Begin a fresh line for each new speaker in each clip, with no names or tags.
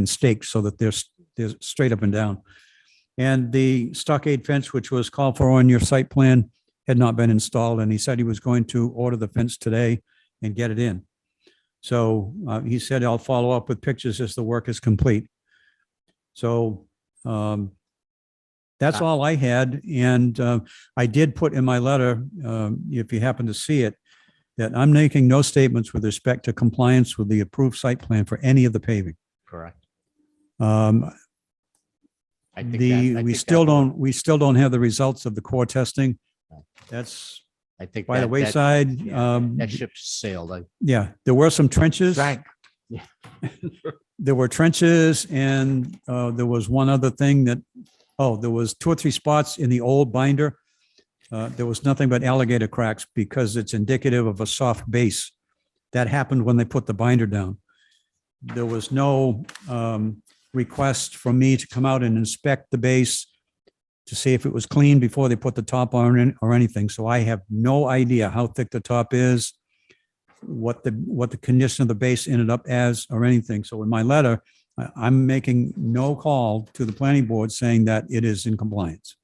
and staked so that they're, s- they're straight up and down. And the stockade fence, which was called for on your site plan, had not been installed, and he said he was going to order the fence today and get it in. So uh, he said, I'll follow up with pictures as the work is complete. So um, that's all I had, and uh, I did put in my letter, um, if you happen to see it, that I'm making no statements with respect to compliance with the approved site plan for any of the paving.
Correct.
Um,
I think that- I
The,
think
we
that
still
would-
don't, we still don't have the results of the core testing.
No.
That's
I think.
by the
that- that-
wayside.
yeah,
Um,
That ship sailed. I-
Yeah, there were some trenches.
Frank,
There were trenches and uh, there was one other thing that, oh, there was two or three spots in the old binder. Uh, There was nothing but alligator cracks because it's indicative of a soft base. That happened when they put the binder down. There was no um, request from me to come out and inspect the base to see if it was clean before they put the top on it or anything. So I have no idea how thick the top is, what the, what the condition of the base ended up as or anything. So in my letter, I- I'm making no call to the planning board saying that it is in compliance.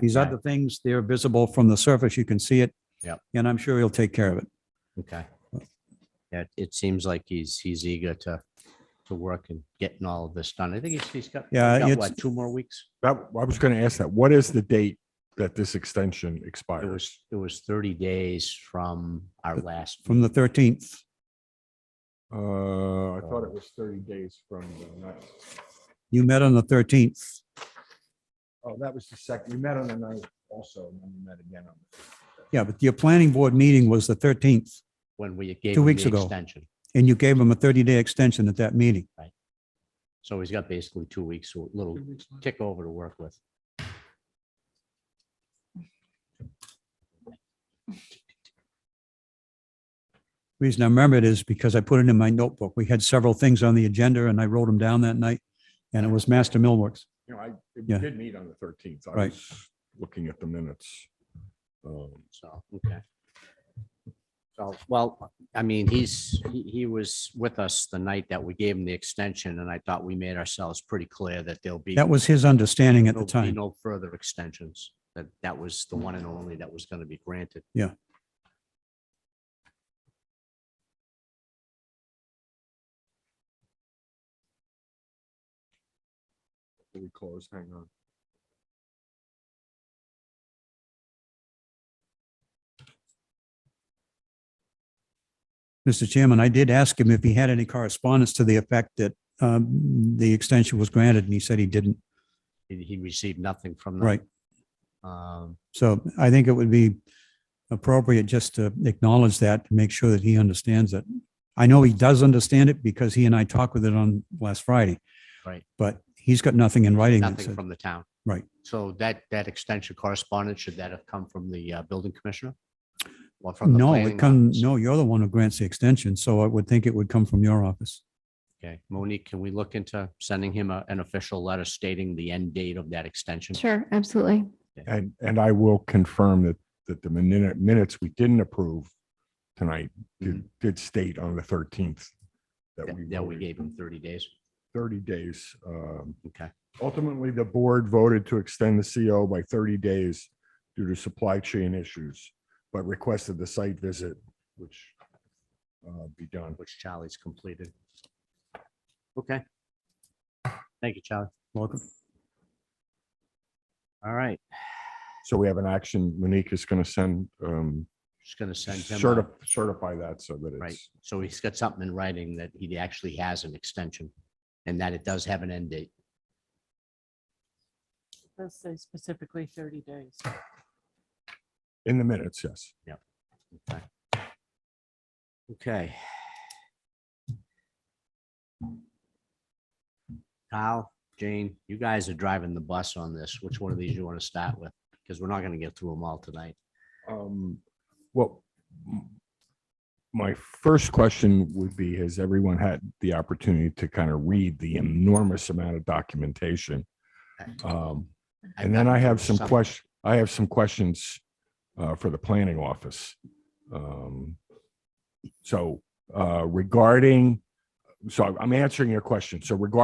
These
yeah,
other things, they're visible from the surface. You can see it.
Yep.
And I'm sure he'll take care of it.
Okay. Yeah, it seems like he's, he's eager to, to work and getting all of this done. I think he's, he's got. he's
Yeah,
got,
it's-
what, Two more weeks?
That, I was going to ask that. What is the date that this extension
It
expires?
was, it was thirty days from our last.
From the 13th,
Uh, I thought it was thirty days from the ninth.
you met on the 13th.
Oh, that was the second. We met on the ninth also, and then we met again on. the
Yeah, but your planning board meeting was the 13th
When we gave.
Two
him
weeks
the
ago.
Extension.
and you gave him a 30-day extension at that meeting.
So he's got basically two weeks, so a little tick over to work with.
Reason I remember it is because I put it in my notebook. We had several things on the agenda and I wrote them down that night. And it was Master Millworks.
You know, I,
Yeah.
we did meet on the thirteenth. I
Right.
was looking at the minutes. Um,
So, okay. So, well, I mean, he's, he, he was with us the night that we gave him the extension and I thought we made ourselves pretty clear that there'll be.
That was his understanding at the
there'll be
time.
No further extensions, that that was the one and only that was going to be granted.
Yeah.
We close, hang on.
Mr. Chairman, I did ask him if he had any correspondence to the effect that um, the extension was granted and he said he didn't.
He, he received nothing from them.
Right.
Um,
So I think it would be appropriate just to acknowledge that, to make sure that he understands it. I know he does understand it because he and I talked with it on last Friday.
Right.
But he's got nothing in writing. that
nothing
said-
from the town.
Right.
So that, that extension correspondence, should that have come from the uh, building commissioner? Or from the
No, it
planning
comes,
office?
no, you're the one who grants the extension, so I would think it would come from your office.
Okay, Monique, can we look into sending him a- an official letter stating the end date of that extension?
Sure, absolutely.
And, and I will confirm that, that the minute, minutes we didn't approve tonight did, did state on the thirteenth.
That that we gave him thirty days.
Thirty days. Um,
Okay,
ultimately, the board voted to extend the CO by thirty days due to supply chain issues, but requested the site visit, which uh, be done.
which Charlie's completed. Okay. Thank you, Charlie.
Welcome.
All right,
So we have an action. Monique is going to send, um,
just gonna send him. a-
certi- certify that so that
Right,
it's,
so he's got something in writing that he actually has an extension and that it does have an end date.
Does say specifically thirty days.
in the minutes, yes.
Okay. Okay. Kyle, Jane, you guys are driving the bus on this. Which one of these you want to start with? Because we're not going to get through them all tonight.
Um, well, m- my first question would be, has everyone had the opportunity to kind of read the enormous amount of documentation? Um,
I've
and then I
gotten
have
through
some question, I have some questions, uh, for the planning office. Um, so, uh, regarding, so I'm answering your question. So regarding